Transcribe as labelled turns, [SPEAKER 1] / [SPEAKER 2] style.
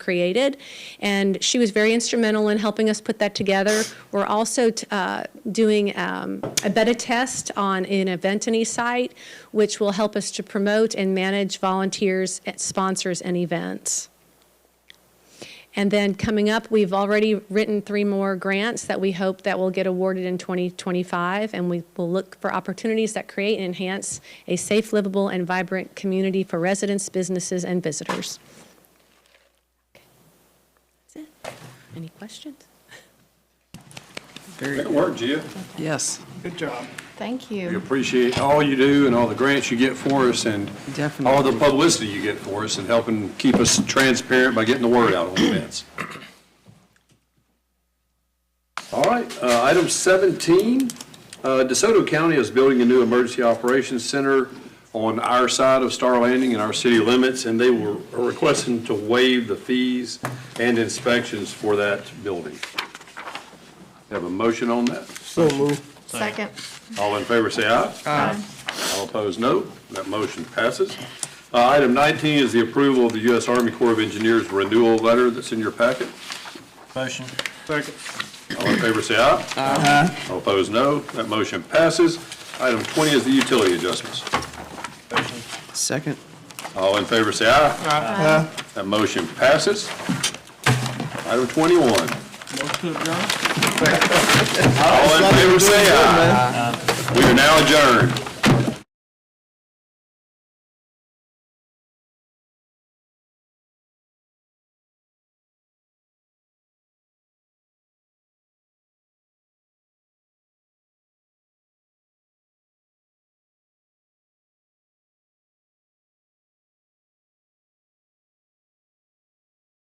[SPEAKER 1] created. And she was very instrumental in helping us put that together. We're also t- uh, doing um, a beta test on an Eventany site, which will help us to promote and manage volunteers, eh, sponsors, and events. And then coming up, we've already written three more grants that we hope that will get awarded in 2025, and we will look for opportunities that create and enhance a safe, livable, and vibrant community for residents, businesses, and visitors. That's it. Any questions?
[SPEAKER 2] Good work, Jill.
[SPEAKER 3] Yes,
[SPEAKER 4] Good job.
[SPEAKER 5] Thank
[SPEAKER 2] We
[SPEAKER 5] you.
[SPEAKER 2] appreciate all you do and all the grants you get for us and all the
[SPEAKER 3] Definitely.
[SPEAKER 2] publicity you get for us and helping keep us transparent by getting the word out on events. All right, uh, item 17, uh, DeSoto County is building a new emergency operations center on our side of Star Landing in our city limits, and they were are requesting to waive the fees and inspections for that building. Have a motion on that?
[SPEAKER 4] So moved.
[SPEAKER 5] Second.
[SPEAKER 2] All in favor, say aye.
[SPEAKER 5] Aye.
[SPEAKER 2] All opposed, no. That motion passes. Uh, Item 19 is the approval of the U.S. Army Corps of Engineers renewal letter that's in your packet.
[SPEAKER 6] Motion.
[SPEAKER 4] Second.
[SPEAKER 2] All in favor, say aye. Aye. All opposed, no. That motion passes. Item 20 is the utility adjustments.
[SPEAKER 6] Motion.
[SPEAKER 3] second,
[SPEAKER 2] All in favor, say aye.
[SPEAKER 4] Aye.
[SPEAKER 2] That motion passes. Item 21. All in
[SPEAKER 4] Motion to adjourn?
[SPEAKER 2] favor, say aye. We are now adjourned.